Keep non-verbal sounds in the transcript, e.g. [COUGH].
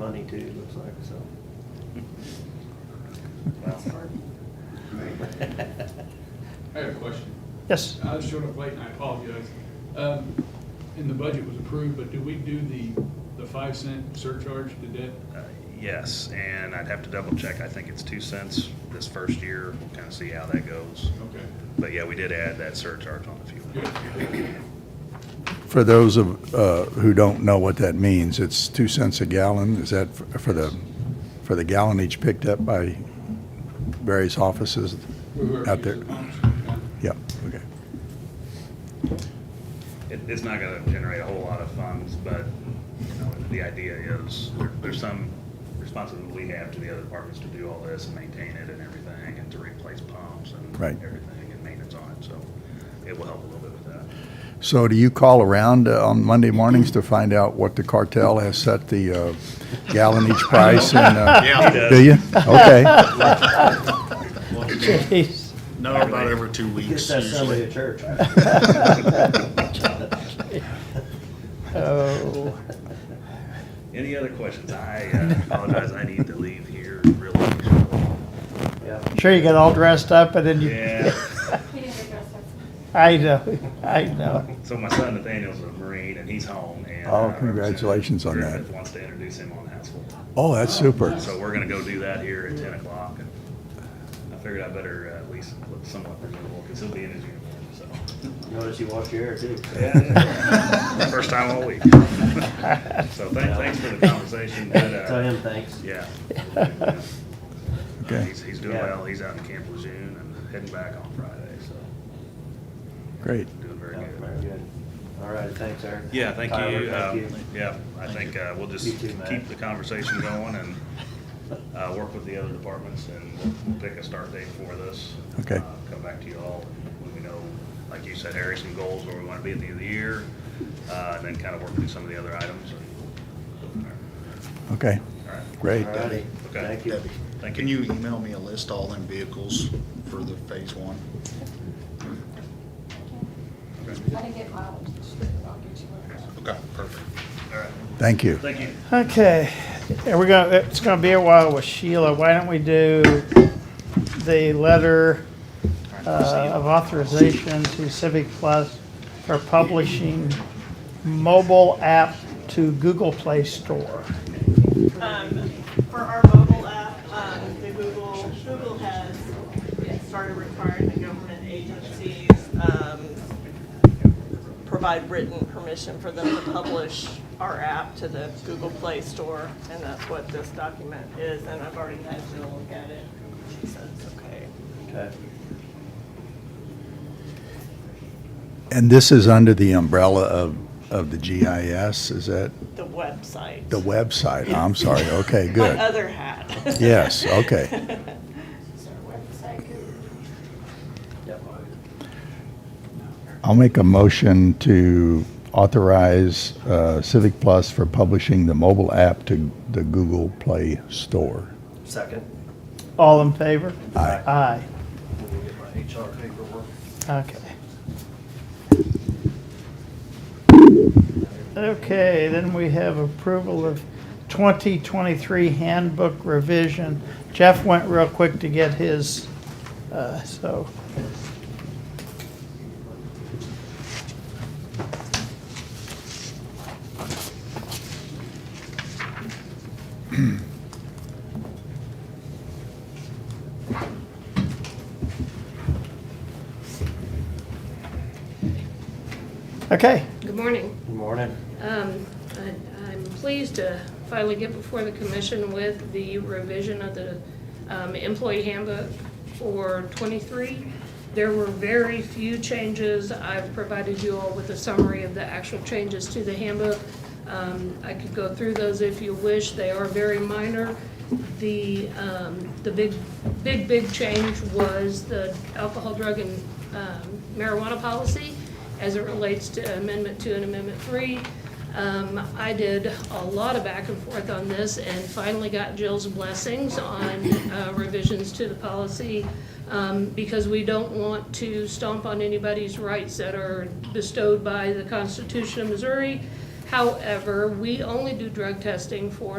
too, it looks like, so. That's hard. I had a question. Yes, I was showed up late and I apologize. Um, And the budget was approved, but do we do the, the five cent surcharge to debt? uh, yes, and I'd have to double check. I think it's two cents this first year. We'll kind of see how that goes. Okay, But yeah, we did add that surcharge on the fuel. good. For those of, uh, who don't know what that means, it's two cents a gallon. Is that f- for the, for the gallon each picked up by various offices? Whoever Out there. uses pumps, yeah. Yeah, okay. It, it's not gonna generate a whole lot of funds, but, you know, the idea is, there- there's some responsibility we have to the other departments to do all this and maintain it and everything, and to replace pumps and Right. everything, and maintenance on it, so it will help a little bit with that. So do you call around uh, on Monday mornings to find out what the cartel has set the uh, gallon each price? and, uh, He does. Do you? Okay. Jeez. [LAUGHS] No, about every two Get weeks that Sunday usually. at church. Oh, Any other questions? I [LAUGHS] uh, apologize, I need to leave here really. Yeah. sure you get all dressed up and then you. Yeah. He didn't address that. [LAUGHS] I know, I know. So my son Nathaniel's a Marine, and he's home, and. Oh, uh, congratulations on Representative that. Wants to introduce him on household. Oh, that's super. So we're gonna go do that here at ten o'clock. and I figured I better uh, at least look somewhat presentable, because he'll be in his uniform, so. [LAUGHS] Notice you wash your hair too. [LAUGHS] First time all week. So thanks, thanks for the conversation, but, uh, Tell him thanks. yeah. Okay. He's, he's doing Yeah. well, he's out in Camp Lejeune and heading back on Friday, so Great. doing very Yeah, good. Oh, Very good. All right, thanks, Eric. Yeah, thank Tyler, you. thank Um, Yeah, I think uh, we'll just You too, Matt. keep the conversation going and uh, work with the other departments and we'll pick a start date for this. Okay. Uh, Come back to you all when we know, like you said, Harry, some goals where we want to be at the end of the year, uh, and then kind of work through some of the other items. and- Okay, All right, great. All righty, Okay. thank you. thank Can you email me a list of all them vehicles for the phase one? I didn't get mileage this year, but I'll get you one. Okay, perfect. All right, Thank you. thank you. Okay, and we're gonna, it's gonna be a while with Sheila. Why don't we do the letter uh, of authorization to Civic Plus for publishing mobile app to Google Play Store? Um, for our mobile app, um, the Google, Google has started requiring the government agencies, um, provide written permission for them to publish our app to the Google Play Store, and that's what this document is, and I've already had Jill look at it. She said it's okay. Okay. And this is under the umbrella of, of the GIS, is that The website. the website? I'm sorry, okay, good. My other hat. Yes, okay. [LAUGHS] Is there a website? Yep. I'll make a motion to authorize uh, Civic Plus for publishing the mobile app to the Google Play Store. Second. All in favor? Aye. Aye, Let me get my HR paperwork. okay. Okay, then we have approval of 2023 handbook revision. Jeff went real quick to get his, uh, so. Okay, Good morning. Good morning. Um, I- I'm pleased to finally get before the commission with the revision of the um, employee handbook for '23. There were very few changes. I've provided you all with a summary of the actual changes to the handbook. Um, I could go through those if you wish. They are very minor. The, um, the big, big, big change was the alcohol, drug, and um, marijuana policy as it relates to Amendment Two and Amendment Three. Um, I did a lot of back and forth on this and finally got Jill's blessings on uh, revisions to the policy um, because we don't want to stomp on anybody's rights that are bestowed by the Constitution of Missouri. However, we only do drug testing for